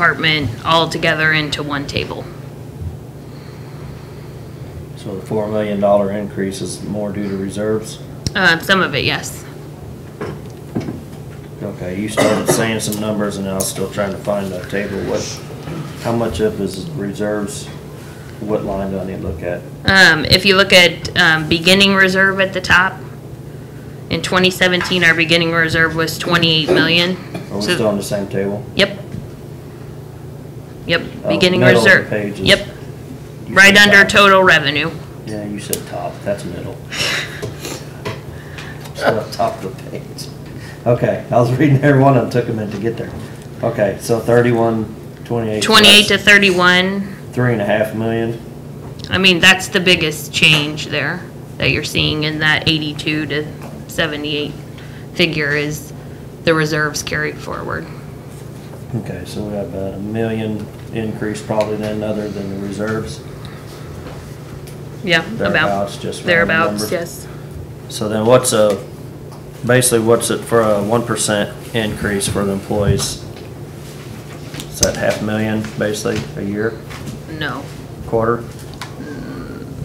department all together into one table. So the four million dollar increase is more due to reserves? Uh, some of it, yes. Okay, you started saying some numbers and I was still trying to find the table, what, how much of is reserves? What line do I need to look at? Um, if you look at, um, beginning reserve at the top, in twenty seventeen, our beginning reserve was twenty-eight million. Are we So- still on the same table? Yep. Yep, Oh, beginning middle of the reserve. page is- Yep, You right said under top. total revenue. Yeah, you said top, that's middle. So the top of the page. Okay, I was reading every one of them, took a minute to get there. Okay, so thirty-one, twenty-eight. so Twenty-eight to that's thirty-one, Three and a half million. I mean, that's the biggest change there that you're seeing in that eighty-two to seventy-eight figure is the reserves carried forward. Okay, so we have about a million increase probably then, other than the reserves. Yeah, about, Thereabouts, just round thereabouts, numbers. yes. So then what's a, basically what's it for a one percent increase for the employees? Is that half million, basically, a year, No. quarter?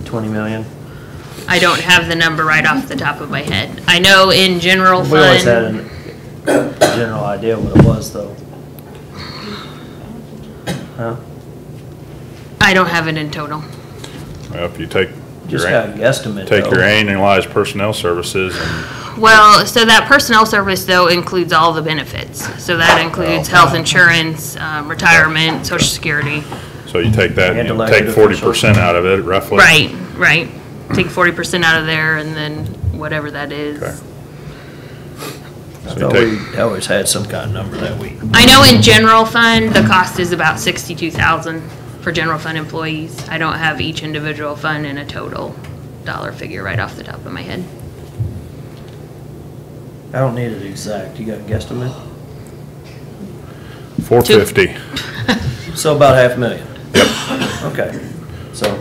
Twenty million? I don't have the number right off the top of my head. I know in general We always had fund, a general idea what it was, though. Huh? I don't have it in total. Well, if you take Just your, got a an- guesstimate, take your though. annualized personnel services and Well, so that personnel service though includes all the benefits. So that includes Oh, health insurance, um, retirement, social security. so you take that, And you know, elected take forty percent out of it roughly. Right, right. Take forty percent out of there and then whatever that Okay. is. I So thought you we take, always had some kind of number that we, I know in general fund, the cost is about sixty-two thousand for general fund employees. I don't have each individual fund in a total dollar figure right off the top of my head. I don't need it exact, you got a guesstimate? four fifty, So about half million? Yep. Okay, so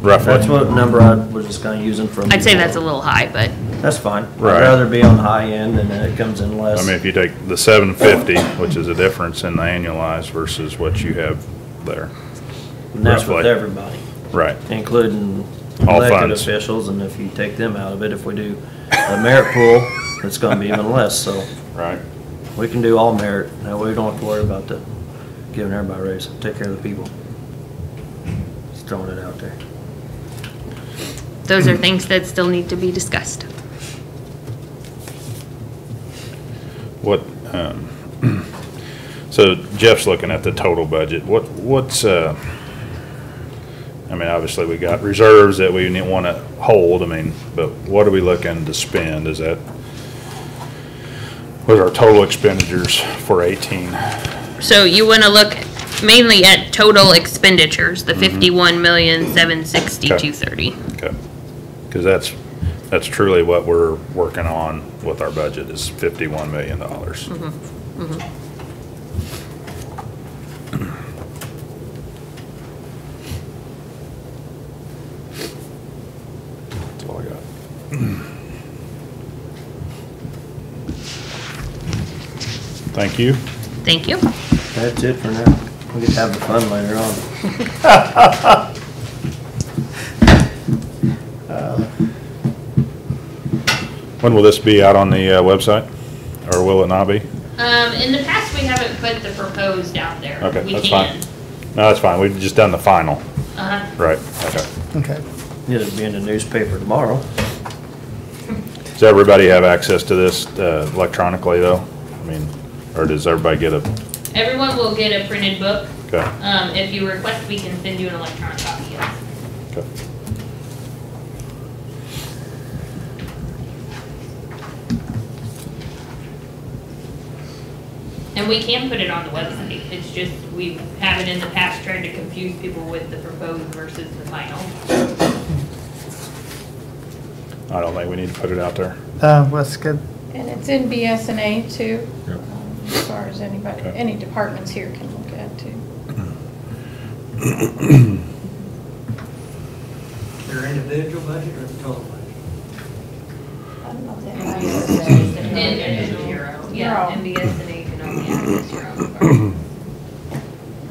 that's roughly. what number I was just kinda using from. I'd say that's a little high, but That's fine. I'd Right. rather be on the high end and then it comes in I less. mean, if you take the seven fifty, which is a difference in the annualized versus what you have there. And that's with roughly. everybody, Right. including All elected funds. officials, and if you take them out of it, if we do a merit pool, it's gonna be even less, so Right. we can do all merit. Now, we don't have to worry about the, giving everybody raises, take care of the people. Just throwing it out there. those are things that still need to be discussed. What, um, so Jeff's looking at the total budget. What, what's, uh, I mean, obviously we got reserves that we want to hold, I mean, but what are we looking to spend? Is that, what are our total expenditures for 18? So you wanna look mainly at total expenditures, Mm-hmm. the fifty-one million, seven sixty-two thirty. Because that's, that's truly what we're working on with our budget is $51 million. That's all I got. Thank you. Thank you. That's it for now. We can have the fun later on. When will this be out on the uh, website? Or will it not be? Um, in the past, we haven't put the proposed out there. Okay, We that's can. fine. No, that's fine. We've just done the final. Uh-huh. Right, okay. Okay. It'll be in the newspaper tomorrow. Does everybody have access to this uh, electronically, though? I mean, or does everybody get a, Everyone will get a printed book. okay, Um, if you request, we can send you an electronic copy. yes. okay. And we can put it on the website. It's just, we haven't in the past tried to confuse people with the proposed versus the final. I don't think we need to put it out there. Uh, well, that's good. And it's in BSNA too, Yep. um, as far as anybody, Okay. any departments here can look at too. Your individual budget or the total budget? I don't know And, that. and your own, Your yeah, own. MBSNA can only access your own.